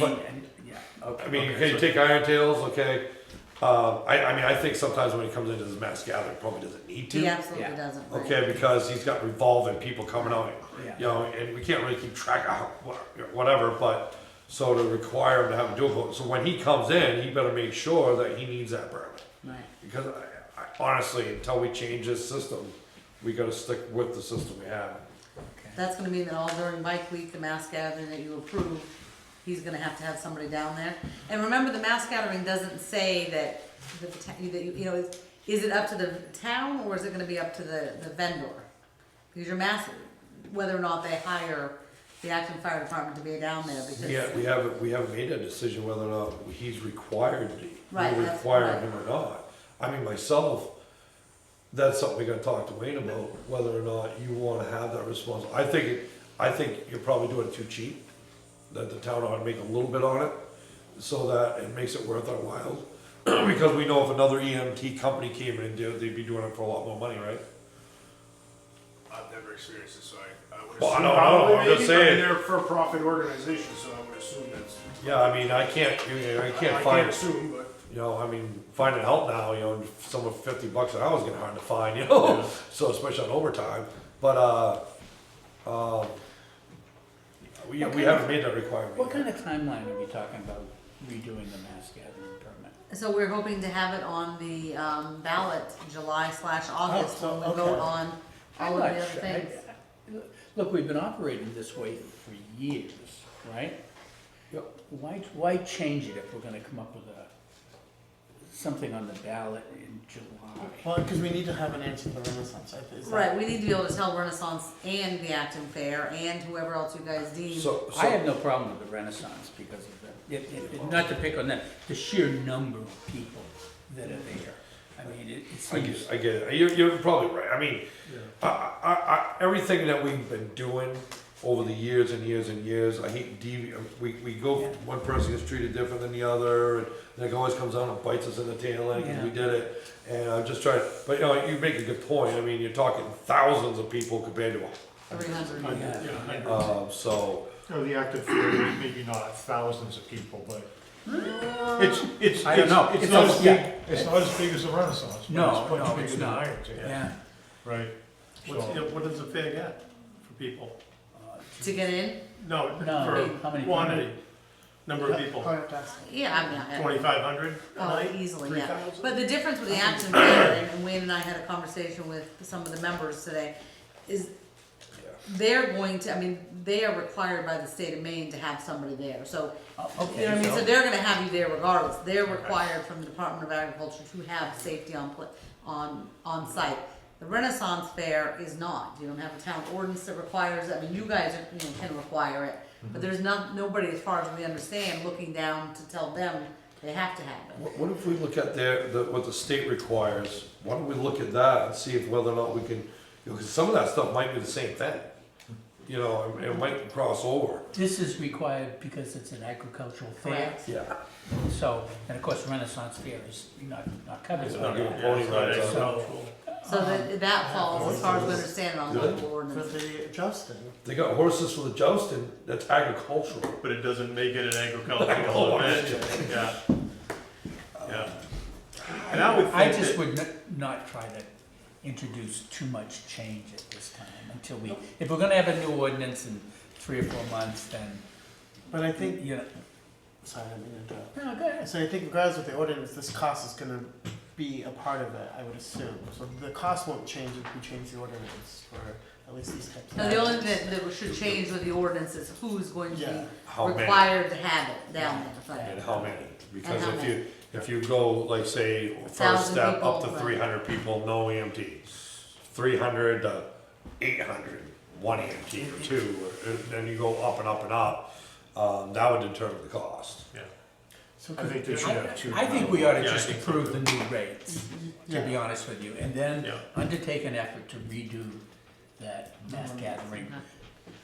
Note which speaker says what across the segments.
Speaker 1: But-
Speaker 2: and- yeah, okay.
Speaker 1: I mean,
Speaker 2: okay,
Speaker 1: okay, you
Speaker 2: so-
Speaker 1: take Iron Tails, okay. Uh, I, I mean, I think sometimes when he comes into this mass gathering, probably doesn't need to.
Speaker 3: He absolutely
Speaker 2: Yeah.
Speaker 3: doesn't. right.
Speaker 1: Okay, because he's got revolving people coming out,
Speaker 2: Yeah.
Speaker 1: you know, and we can't really keep track of how- wha- whatever, but, so to require him to have a dual vote, so when he comes in, he better make sure that he needs that permit.
Speaker 3: Right.
Speaker 1: Because I, I honestly, until we change this system, we gotta stick with the system we have.
Speaker 3: That's gonna mean that all during Mike Week, the mass gathering that you approve, he's gonna have to have somebody down there. And remember, the mass gathering doesn't say that, the ta- that, you you know, is, is it up to the town or is it gonna be up to the, the vendor? Because your mass, whether or not they hire the Acton Fire Department to be down there because.
Speaker 1: Yeah, we haven't, we haven't made a decision whether or not he's required,
Speaker 3: Right,
Speaker 1: we're
Speaker 3: that's
Speaker 1: requiring
Speaker 3: right.
Speaker 1: him or not. I mean, myself, that's something we gotta talk to Wayne about, whether or not you wanna have that response. I think, it- I think you're probably doing it too cheap, that the town ought to make a little bit on it, so that it makes it worth our while. Because we know if another EMT company came in and did it, they'd be doing it for a lot more money, right?
Speaker 4: I've never experienced it, so I, I would
Speaker 1: Well, I
Speaker 4: assume.
Speaker 1: don't know,
Speaker 4: probably
Speaker 1: I'm just
Speaker 4: maybe, but I mean,
Speaker 1: saying.
Speaker 4: They're a for-profit organization, so I would assume that's.
Speaker 1: Yeah, I mean, I can't, you know, I
Speaker 4: I
Speaker 1: can't
Speaker 4: can't
Speaker 1: find
Speaker 4: assume, but.
Speaker 1: you know, I mean, finding help now, you know, someone fifty bucks an hour is getting hard to find, you know, so especially on overtime. But uh, um, we,
Speaker 2: What
Speaker 1: we
Speaker 2: kind
Speaker 1: haven't made that requirement.
Speaker 2: What
Speaker 1: yet.
Speaker 2: kind of timeline are we talking about redoing the mass gathering permit?
Speaker 3: So we're hoping to have it on the, um, ballot July slash August
Speaker 2: Oh,
Speaker 3: when we
Speaker 2: okay.
Speaker 3: vote on all
Speaker 2: I'm
Speaker 3: of the
Speaker 2: not
Speaker 3: other
Speaker 2: sure. I-
Speaker 3: things.
Speaker 2: I- Look, we've been operating this way for years, right?
Speaker 1: Yep.
Speaker 2: Why, why change it if we're gonna come up with a, something on the ballot in July?
Speaker 5: Well, because we need to have an answer to the Renaissance. I- is that-
Speaker 3: Right, we need to be able to tell Renaissance and the Acton Fair and whoever else you guys deem.
Speaker 1: So,
Speaker 2: I have
Speaker 1: so,
Speaker 2: no problem with the Renaissance because of the, it- it- it- not to pick on that, the sheer number of people that are there. I mean, it it
Speaker 1: I get,
Speaker 2: seems,
Speaker 1: it, I get it. You're, you're probably right. I mean, I, I, I, everything that we've been doing over the years and years and years, I hate devi, we, we go,
Speaker 2: Yeah.
Speaker 1: one person gets treated different than the other, and then it always comes out and bites us in the tail end, 'cause we
Speaker 2: Yeah.
Speaker 1: did it. And I'm just trying, but you know, you make a good point. I mean, you're talking thousands of people compared to
Speaker 3: Three hundred.
Speaker 4: uh,
Speaker 2: Yeah.
Speaker 1: Um, so,
Speaker 6: Or the active theater, maybe not thousands of people, but it's, it's,
Speaker 2: I don't know.
Speaker 6: it's,
Speaker 2: It's
Speaker 6: it's not
Speaker 2: almost-
Speaker 6: as big,
Speaker 2: yeah.
Speaker 6: it's not as big as the Renaissance,
Speaker 2: No,
Speaker 6: but it's
Speaker 2: no,
Speaker 6: much bigger
Speaker 2: it's
Speaker 6: than the
Speaker 2: not.
Speaker 6: Iron Tail.
Speaker 2: yeah.
Speaker 6: Right.
Speaker 4: What's,
Speaker 6: So-
Speaker 4: the- what does the fair get for people?
Speaker 3: To get in?
Speaker 4: No,
Speaker 2: No, how
Speaker 4: for
Speaker 2: many?
Speaker 4: quantity, number of people,
Speaker 5: I'll have to ask.
Speaker 3: Yeah, I mean, I-
Speaker 4: twenty-five hundred a
Speaker 3: Oh,
Speaker 4: night?
Speaker 3: easily,
Speaker 4: Three
Speaker 3: yeah.
Speaker 4: thousand?
Speaker 3: But the difference with the Acton Fair, and- and Wayne and I had a conversation with some of the members today, is they're going to, I mean, they are required by the state of Maine to have somebody there, so.
Speaker 2: Oh,
Speaker 3: You know what I
Speaker 2: Okay,
Speaker 3: mean, so
Speaker 2: so,
Speaker 3: they're gonna have you there regardless, they're required from the Department of Agriculture to have safety on, pla- on, on site. The Renaissance Fair is not, you don't have a town ordinance that requires, it. I mean, you guys, are- you know, can require it,
Speaker 1: Mm-hmm.
Speaker 3: but there's not, nobody, as far as we understand, looking down to tell them they have to have it.
Speaker 1: what, what if we look at their, the, what the state requires? Why don't we look at that and see if whether or not we can, you know, 'cause some of that stuff might be the same thing. You know, it might cross over.
Speaker 2: this is required because it's an agricultural fair,
Speaker 3: Correct.
Speaker 1: Yeah.
Speaker 2: so, and of course Renaissance Fair is not, not covered
Speaker 1: It's
Speaker 2: by
Speaker 1: not giving
Speaker 2: that.
Speaker 1: pony rides out.
Speaker 2: So,
Speaker 3: So
Speaker 1: Um,
Speaker 3: that, that falls, as far as we understand, on local
Speaker 5: For
Speaker 3: ordinance.
Speaker 5: the Justin.
Speaker 1: They got horses for the jousting. That's agricultural.
Speaker 4: But it doesn't make it an
Speaker 1: Oh,
Speaker 4: agricultural
Speaker 1: I
Speaker 4: event, yeah. Yeah. And I would
Speaker 2: I
Speaker 4: think
Speaker 2: just
Speaker 4: that,
Speaker 2: would n- not try to introduce too much change at this time until we, if we're gonna have a new ordinance in three or four months, then,
Speaker 5: But I think,
Speaker 2: you know.
Speaker 5: sorry, I didn't interrupt.
Speaker 2: No, go ahead.
Speaker 5: So I think regardless of the ordinance, this cost is gonna be a part of it, I would assume. So the cost won't change if we change the ordinance for at least these types of.
Speaker 3: So the only
Speaker 5: items.
Speaker 3: thing that, that should change with the ordinance is who's going to
Speaker 5: Yeah.
Speaker 3: be
Speaker 1: How many?
Speaker 3: required to have it down there,
Speaker 1: And
Speaker 3: but,
Speaker 1: how many? Because
Speaker 3: how
Speaker 1: if
Speaker 3: many.
Speaker 1: you, if you go, like, say, first
Speaker 3: thousand
Speaker 1: step up
Speaker 3: people,
Speaker 1: to
Speaker 3: right.
Speaker 1: three hundred people, no EMT. Three hundred to eight hundred, one EMT or two, or- then you go up and up and up. Um, that would determine the cost.
Speaker 4: yeah.
Speaker 5: So
Speaker 4: I
Speaker 5: could-
Speaker 4: think they should have two.
Speaker 2: I think we ought to
Speaker 4: Yeah, I
Speaker 2: just
Speaker 4: think so
Speaker 2: approve
Speaker 4: too.
Speaker 2: the new rates, to be
Speaker 5: Yeah.
Speaker 2: honest with you, and then
Speaker 4: Yeah.
Speaker 2: undertake an effort to redo that mass gathering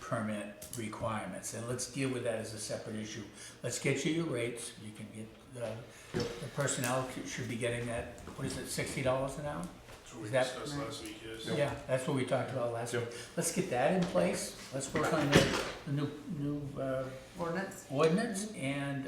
Speaker 2: permit requirements, and let's deal with that as a separate issue. Let's get you your rates, you uh, can get, the, the personnel c- should be getting that, what is it, sixty dollars an hour?
Speaker 4: So we
Speaker 2: Is that-
Speaker 4: discussed last week, yes.
Speaker 2: Yeah, that's what we talked about last week.
Speaker 7: Yep.
Speaker 2: Let's get that in place, let's work on the, the new, new, uh,
Speaker 3: ordinance?
Speaker 2: ordinance, and